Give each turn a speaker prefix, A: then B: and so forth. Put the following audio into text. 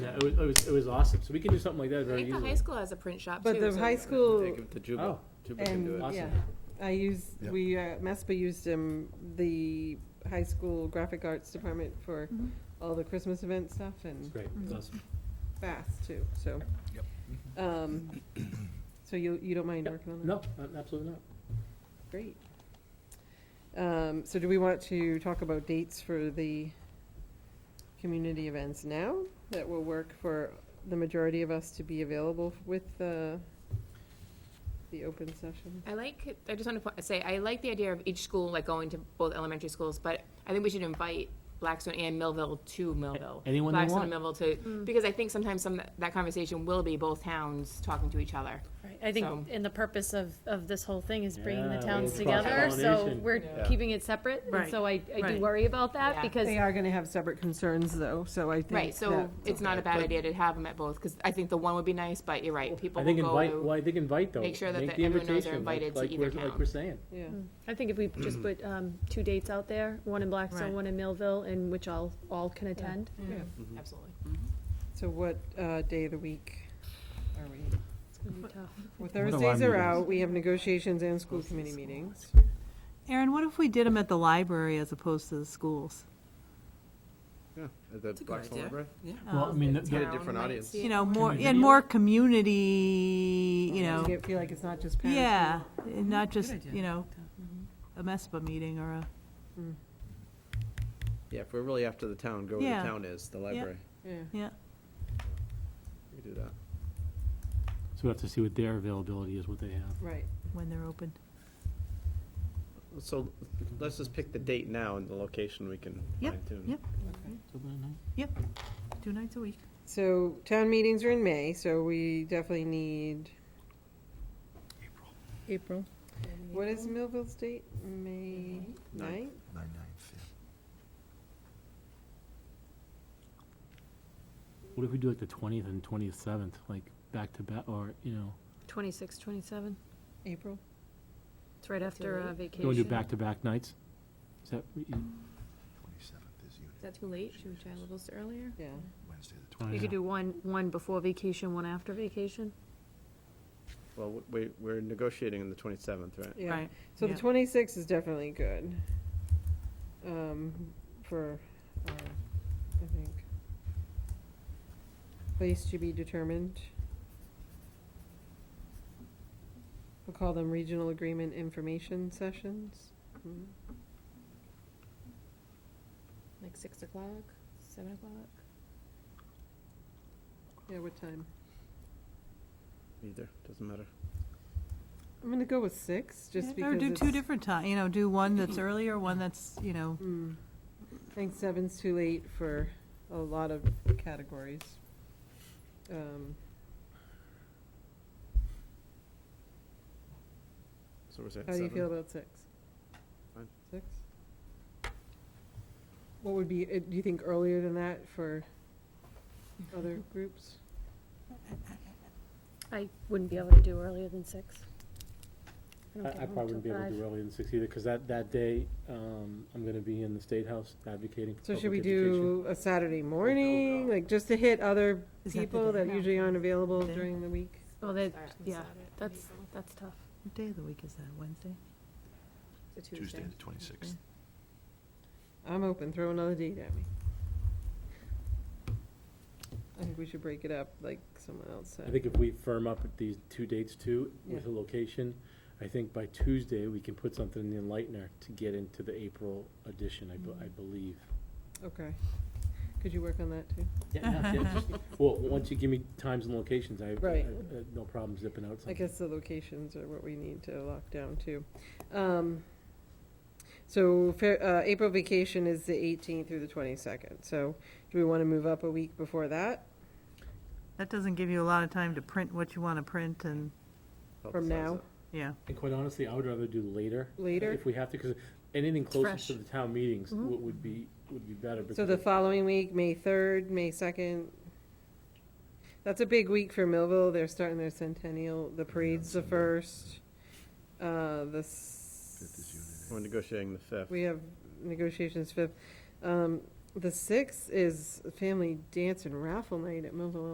A: Yeah, it was, it was, it was awesome. So we can do something like that
B: I
A: very
B: think the
A: easily.
B: high school has a print shop too.
C: But the
B: so-
C: high school
D: Take him to
A: Oh,
D: Juba. Juba can do
C: and,
D: it.
C: yeah,
A: Awesome.
C: I use,
E: Yeah.
C: we, uh, MESPA used um the high school graphic arts department for
B: Mhm.
C: all the Christmas event stuff
A: it's
C: and
A: great.
B: Mm-hmm.
A: It's awesome.
C: fast too, so. Um, so you, you don't mind
A: Mm-hmm. Yep.
C: working on that?
A: No, a- absolutely not.
C: Great. Um, so do we want to talk about dates for the community events now? That will work for the majority of us to be available with the, the open session?
B: I like, I just want to say, I like the idea of each school, like going to both elementary schools, but I think we should invite Blackstone and Millville to Millville.
A: anyone they
B: Blackstone
A: want.
B: and Millville to, because I think sometimes some, that conversation will be both towns talking to each other.
F: Right, I
B: So-
F: think, and the purpose of, of this whole thing is bringing
A: Yeah,
F: the towns
A: little
F: together, so
A: cross-pollination.
F: we're
D: Yeah.
F: keeping it separate, and
C: Right,
F: so I, I do
C: right.
F: worry about that,
B: Yeah.
F: because
C: They are gonna have separate concerns though, so I think
B: Right, so
C: that-
B: it's not a bad idea to have them at both, because I think the one would be nice, but you're right, people
A: I
B: will
A: think
B: go
A: invite,
B: to.
A: well, I think invite though.
B: Make sure that
A: Make
B: the-
A: the
B: everyone knows they're
A: invitation, like-
B: invited to
A: like
B: either
A: we're- Like
B: town.
A: we're saying.
C: Yeah,
F: I think if we just put, um, two dates out there, one in Blackstone,
G: Right.
F: one in Millville, and which all, all can attend.
C: yeah.
B: Mm-hmm.
A: Mm-hmm.
B: Absolutely.
C: So what, uh, day of the week are we?
F: It's gonna be tough.
C: Well,
E: are our
C: Thursdays are
E: meetings?
C: out, we have negotiations and school committee meetings.
G: Aaron, what if we did them at the library as opposed to the schools?
D: Yeah, at the
G: a good
D: Blackstone
G: idea.
D: Library.
G: Well, I mean,
D: Get a different audience.
G: Um, You know, more,
A: Community.
G: and more community, you know,
C: You feel like it's not just parents.
G: yeah, and not just,
E: idea.
G: you know, a MESPA meeting or a,
D: Yeah, if we're really after the town, go where the
G: Yeah.
D: town is, the library.
C: Yeah.
G: yeah.
D: We can do that.
A: So we have to see what their availability is, what they have.
C: Right,
G: When they're open.
D: So let's just pick the date now and the location we can
G: Yep,
D: fine tune.
G: yep. Yep, two nights a week.
C: so town meetings are in May, so we definitely need,
G: April.
C: what is Millville's date? May ninth?
D: Ninth.
E: Nine, nine, fifth.
A: What if we do like the twentieth and twenty-seventh, like back to back, or, you know,
F: Twenty-six, twenty-seven,
C: April?
F: it's right after uh,
A: you wanna do
F: vacation.
A: back to back nights? Is that, you-
E: Twenty-seventh is
B: Is
E: unit,
B: that too late? Should we try a little bit earlier?
C: Yeah.
E: Wednesday the
A: I
F: You
A: don't
F: could
A: know.
F: do one, one before vacation, one after vacation.
D: Well, w- we, we're negotiating on the twenty-seventh, right?
C: Yeah.
G: Right.
C: So the
G: yeah.
C: twenty-sixth is definitely good, um, for, uh, I think, place to be determined. We'll call them regional agreement information sessions. Hmm.
B: Like six o'clock, seven o'clock?
C: Yeah, what time?
D: Either, doesn't matter.
C: I'm gonna go with six, just
G: Or
C: because
G: do two
C: it's-
G: different ti, you know, do one that's earlier, one that's, you know,
C: Hmm. I think seven's too late for a lot of categories. Um,
D: So we're saying
C: How do you feel
D: seven?
C: about six?
D: Fine.
C: Six? What would be, uh, do you think earlier than that for other groups?
F: I wouldn't be able to do earlier than six. don't
A: I,
F: get
A: I
F: home
A: probably wouldn't be
F: till
A: able to
F: five.
A: do earlier than six either, cause that, that day, um, I'm gonna be in the State House advocating for
C: So should we
A: public education.
C: do a Saturday morning, like just to hit other
G: Is that the
C: people
G: day?
C: that usually aren't available
G: Day?
C: during the week?
F: Well, that,
B: Start on
F: yeah,
B: Saturday.
F: that's, that's tough.
G: what day of the week is that, Wednesday?
B: It's a
E: Tuesday the twenty-sixth.
C: I'm open, throw another date at me. I think we should break it up like someone else
A: I
C: said.
A: think if we firm up these two dates too, with a
C: Yeah.
A: location, I think by Tuesday, we can put something in the Enlightener to get into the April edition, I, bu-
C: Mm-hmm.
A: I believe.
C: Okay. Could you work on that too?
A: Yeah, yeah, just- Well, once you give me times and locations, I, I-
C: Right.
A: I- I- no problem zipping out
C: I
A: something.
C: guess the locations are what we need to lock down too. Um, So Fe- uh, April vacation is the 18th through the 22nd, so do we want to move up a week before that
G: That doesn't give you a lot of time to print what you want to print and,
C: from
D: Publicize
C: now?
D: it.
G: yeah.
A: And quite honestly, I would rather do later.
C: Later? Mm-hmm.
A: If we have to, because anything closer
F: fresh.
A: to the town meetings would would be, would be better.
C: So
A: because
C: the following week, May 3rd, May 2nd. That's a big week for Millville, they're starting their centennial, the parade's the first. Uh, The
E: Fifth is
C: s-
E: unit.
D: We're negotiating the fifth.
C: We have negotiations fifth. Um, The sixth is family dance and raffle night at Millville